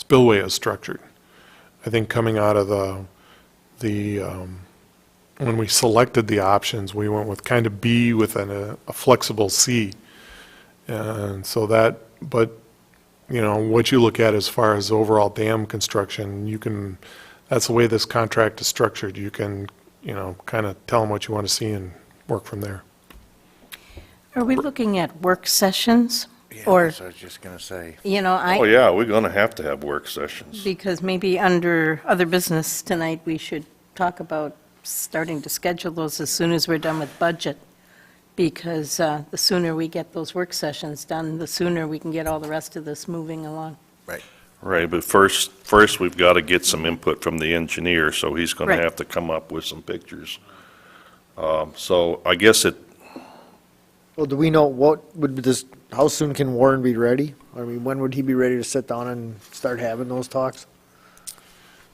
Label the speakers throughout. Speaker 1: spillway is structured. I think coming out of the, the, um, when we selected the options, we went with kind of B with an, uh, a flexible C. And so that, but, you know, what you look at as far as overall dam construction, you can, that's the way this contract is structured. You can, you know, kind of tell them what you want to see and work from there.
Speaker 2: Are we looking at work sessions?
Speaker 3: Yeah,
Speaker 2: Or,
Speaker 3: that's what I was just going to say.
Speaker 2: you know,
Speaker 4: Oh,
Speaker 2: I,
Speaker 4: yeah, we're going to have to have work sessions.
Speaker 2: because maybe under other business tonight, we should talk about starting to schedule those as soon as we're done with budget, because uh, the sooner we get those work sessions done, the sooner we can get all the rest of this moving along.
Speaker 4: Right, but first, first, we've got to get some input from the engineer, so he's going to
Speaker 2: Right.
Speaker 4: have to come up with some pictures. Um, So I guess it,
Speaker 5: Well, do we know what would this, how soon can Warren be ready? I mean, when would he be ready to sit down and start having those talks?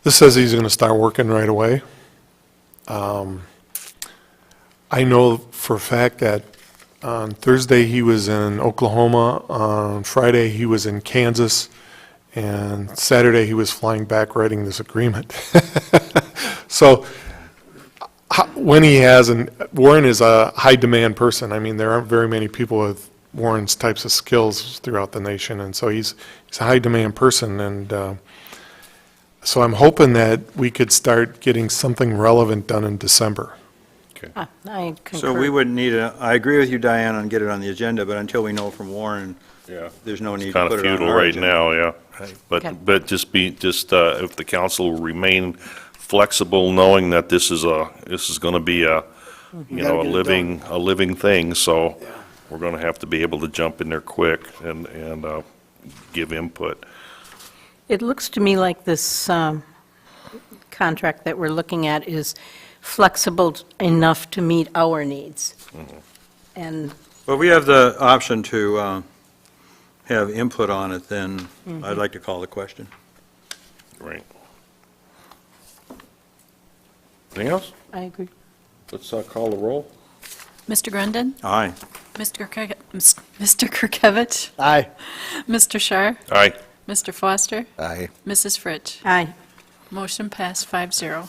Speaker 1: This says he's going to start working right away. Um, I know for a fact that on Thursday, he was in Oklahoma, on Friday, he was in Kansas, and Saturday, he was flying back writing this agreement. So ho- when he has, and Warren is a high-demand person. I mean, there aren't very many people with Warren's types of skills throughout the nation, and so he's, he's a high-demand person, and uh, so I'm hoping that we could start getting something relevant done in December.
Speaker 5: Uh,
Speaker 2: Ah, I concur.
Speaker 6: So we would need a, I agree with you, Diane, on get it on the agenda, but until we know from Warren,
Speaker 4: yeah,
Speaker 6: there's no need to
Speaker 4: kind
Speaker 6: put
Speaker 4: of
Speaker 6: it on
Speaker 4: futile
Speaker 6: our
Speaker 4: right
Speaker 6: agenda.
Speaker 4: now, yeah.
Speaker 6: Right.
Speaker 2: Okay.
Speaker 4: But, but just be, just uh, if the council remain flexible, knowing that this is a, this is going to be a, you know, a
Speaker 5: Mm-hmm. Gotta get it
Speaker 4: living, a living thing, so we're going to have to be able to jump in there quick and, and uh, give input.
Speaker 2: It looks to me like this um, contract that we're looking at is flexible enough to meet our needs. And
Speaker 6: Well, we have the option to uh, have input on it, then I'd like to call the question.
Speaker 4: Right. Anything else?
Speaker 2: I agree.
Speaker 4: Let's uh, call the roll.
Speaker 7: Mr. Grundon?
Speaker 6: Aye.
Speaker 7: Mr. Kirk- Mr. Kirkovich?
Speaker 5: Aye.
Speaker 7: Mr. Shar?
Speaker 4: Aye.
Speaker 7: Mr. Foster?
Speaker 3: Aye.
Speaker 7: Mrs. Fritsch?
Speaker 2: Aye.
Speaker 7: Motion passed five zero.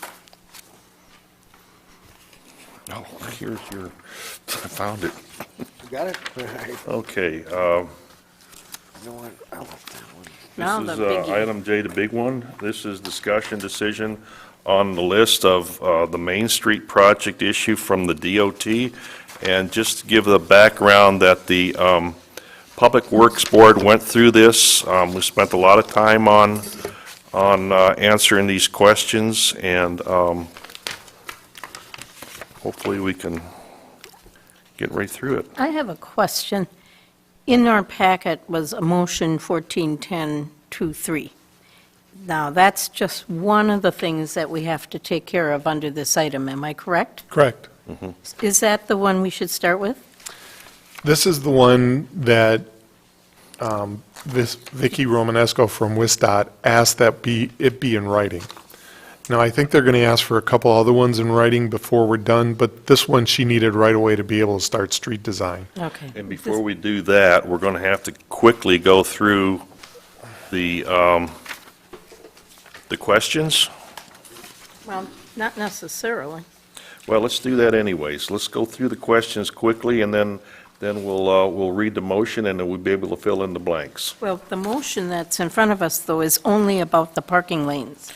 Speaker 4: Oh, here's your, I found it.
Speaker 3: You got it? All right.
Speaker 4: Okay, uh,
Speaker 3: You know what? I left that one.
Speaker 2: Now
Speaker 4: this is
Speaker 2: the
Speaker 4: uh,
Speaker 2: biggie.
Speaker 4: item J, the big one. This is discussion decision on the list of uh, the Main Street project issue from the DOT. And just to give the background that the um, Public Works Board went through this, um, we spent a lot of time on, on uh, answering these questions, and um, hopefully we can get right through it.
Speaker 2: I have a question. In our packet was a motion 141023. Now, that's just one of the things that we have to take care of under this item, am I correct?
Speaker 1: Correct.
Speaker 2: Is that the one we should start with?
Speaker 1: This is the one that um, this Vicky Romanesco from WISDOT asked that be, it be in writing. Now, I think they're going to ask for a couple other ones in writing before we're done, but this one she needed right away to be able to start street design.
Speaker 2: Okay.
Speaker 4: And before we do that, we're going to have to quickly go through the, um, the questions.
Speaker 2: Well, not necessarily.
Speaker 4: Well, let's do that anyways. Let's go through the questions quickly, and then, then we'll, uh, we'll read the motion, and then we'll be able to fill in the blanks.
Speaker 2: Well, the motion that's in front of us, though, is only about the parking lanes.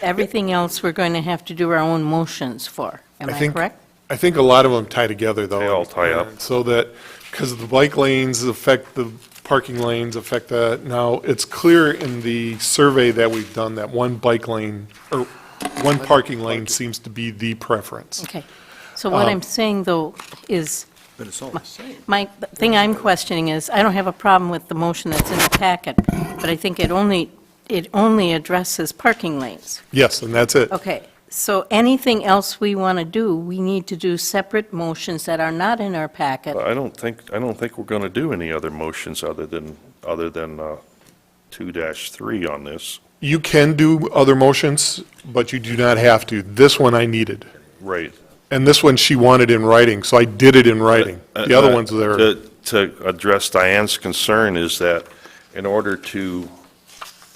Speaker 2: Everything else, we're going to have to do our own motions for. Am
Speaker 1: I
Speaker 2: I
Speaker 1: think-
Speaker 2: correct?
Speaker 1: I think a lot of them tie together, though.
Speaker 4: They all tie up.
Speaker 1: So that, because the bike lanes affect the parking lanes, affect the, now, it's clear in the survey that we've done that one bike lane, or one parking lane seems to be the preference.
Speaker 2: Okay. So what I'm saying, though, is,
Speaker 6: But it's all the same.
Speaker 2: my, the thing I'm questioning is, I don't have a problem with the motion that's in the packet, but I think it only, it only addresses parking lanes.
Speaker 1: Yes, and that's it.
Speaker 2: Okay. So anything else we want to do, we need to do separate motions that are not in our packet.
Speaker 4: I don't think, I don't think we're going to do any other motions other than, other than uh, 2-3 on this.
Speaker 1: You can do other motions, but you do not have to. This one I needed.
Speaker 4: Right.
Speaker 1: And this one she wanted in writing, so I did it in
Speaker 4: Uh,
Speaker 1: writing. The other ones there.
Speaker 4: To, to address Diane's concern is that in order to